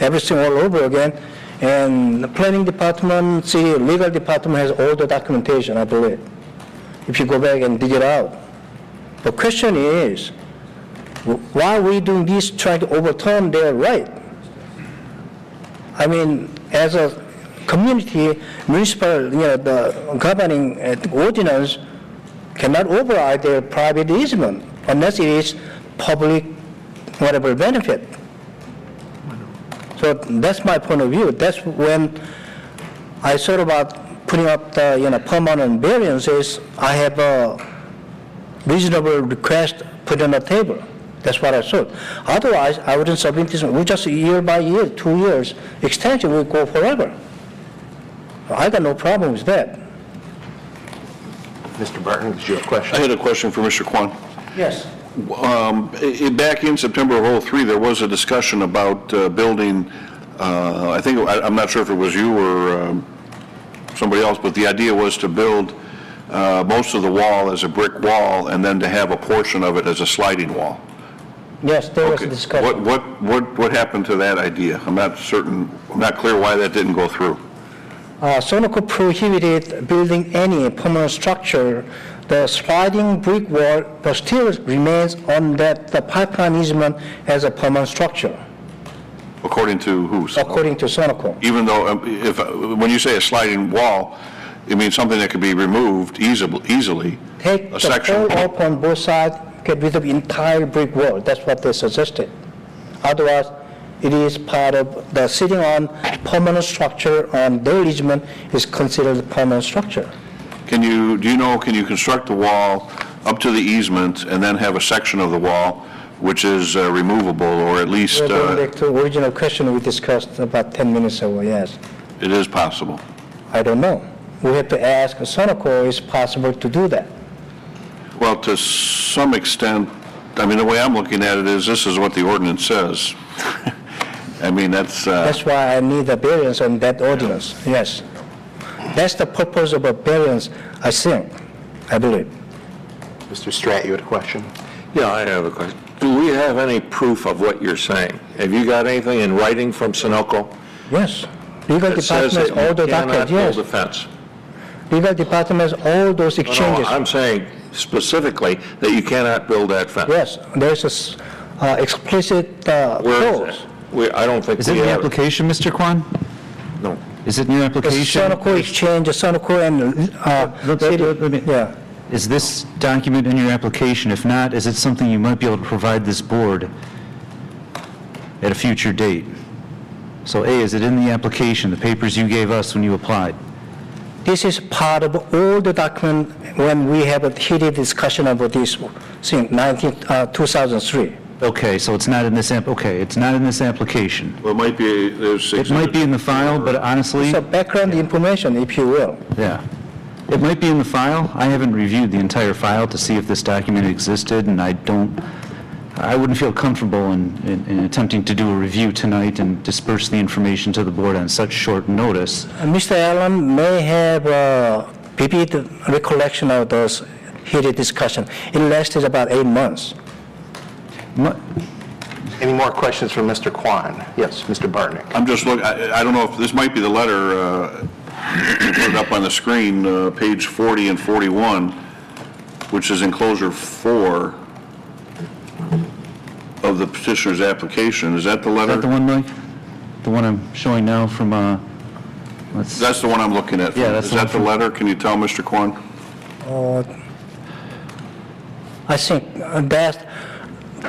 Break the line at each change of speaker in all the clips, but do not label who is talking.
everything all over again. And the planning department, city legal department has all the documentation, I believe, if you go back and dig it out. The question is, wh- why we doing this, trying to overturn their right? I mean, as a community, municipal, you know, the governing uh, ordinance cannot override their private easement unless it is public, whatever benefit. So that's my point of view. That's when I thought about putting up the, you know, permanent variances, I have a reasonable request put on the table. That's what I thought. Otherwise, I wouldn't submit this, we just year by year, two years, extension will go forever. I got no problem with that.
Mr. Burton, is your
I
question?
had a question for Mr. Kwan.
Yes.
Um, i- i- Back in September of '03, there was a discussion about uh, building, uh, I think, I- I'm not sure if it was you or um, somebody else, but the idea was to build uh, most of the wall as a brick wall and then to have a portion of it as a sliding wall.
Yes, there was a
Okay.
discussion.
What- What, what, what happened to that idea? I'm not certain, I'm not clear why that didn't go through.
Uh, Sonoco prohibited building any permanent structure. The sliding brick wall but still remains on that, the pipeline easement as a permanent structure,
According to who?
according to Sonoco.
Even though, um, if, when you say a sliding wall, it means something that could be removed easily, easily.
Take
A
the
section.
whole up on both sides, get rid of entire brick wall, that's what they suggested. Otherwise, it is part of the sitting on permanent structure on their easement is considered permanent structure.
Can you, do you know, can you construct the wall up to the easement and then have a section of the wall which is uh, removable, or at least
We're going
uh,
back to original question we discussed about 10 minutes ago, yes.
it is possible?
I don't know. We have to ask Sonoco, is possible to do that?
Well, to some extent, I mean, the way I'm looking at it is, this is what the ordinance says. I mean, that's, uh,
That's why I need a variance on that ordinance, yes. That's the purpose of a variance, I think, I believe.
Mr. Stratt, you had a question?
Yeah, I have a question. Do we have any proof of what you're saying? Have you got anything in writing from Sunoco
Yes. Legal
that says that
department, all
you
the
cannot
docket,
build a
yes.
fence?
Legal department, all those
No, No,
exchanges.
I'm saying specifically that you cannot build that fence.
Yes, there's a s- uh, explicit uh,
Where is
clause.
it? We, I don't think
Is
we
it in the
have. it.
application, Mr. Kwan?
No.
Is it in your
The
application?
Sonoco exchange, the Sonoco and,
Let-
uh,
let-
city-
let me-
yeah.
Is this document in your application? If not, is it something you might be able to provide this board at a future date? So A, is it in the application, the papers you gave us when you applied?
This is part of all the document when we have a heated discussion about this since 19, uh, 2003.
Okay, so it's not in this app, okay, it's not in this application.
well, it might be, there's...
It might be in the file, but honestly,
So background information, if you will.
yeah. It might be in the file. I haven't reviewed the entire file to see if this document existed, and I don't, I wouldn't feel comfortable in, in- in attempting to do a review tonight and disperse the information to the board on such short notice.
Uh, Mr. Allen may have uh, vivid recollection of those heated discussion. It lasted about eight months.
Mu-
Any more questions from Mr. Kwan? Yes, Mr. Burton.
I'm just looking, I I don't know if, this might be the letter, uh, put it up on the screen, uh, page 40 and 41, which is enclosure four of the petitioner's application. Is that the
Is that
letter?
the one, Mike? The one I'm showing now from, uh, let's,
That's the one I'm looking at.
Yeah, that's
Is
the one
that the
from-
letter? Can you tell, Mr. Kwan?
Uh, I think uh, that,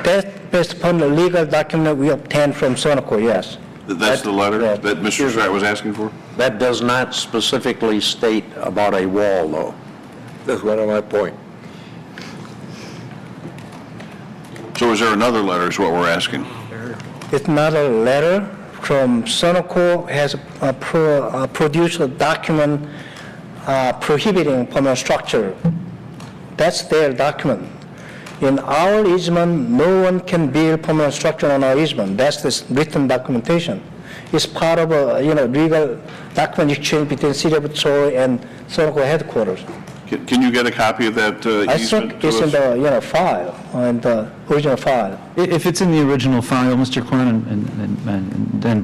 that based upon the legal document we obtained from Sonoco, yes.
That That's the letter
That-
that Mr. Stratt was asking for?
That does not specifically state about a wall, though.
That's one of my point.
So is there another letter is what we're asking?
It's not a letter from Sonoco has uh, pro- uh, produced a document uh, prohibiting permanent structure. That's their document. In our easement, no one can build permanent structure on our easement. That's this written documentation. It's part of a, you know, legal document exchange between City of Troy and Sonoco headquarters.
Can can you get a copy of that uh,
I
easement
think
to us?
it's in the, you know, file, and the original file.
I- If it's in the original file, Mr. Quan, and- and- and and then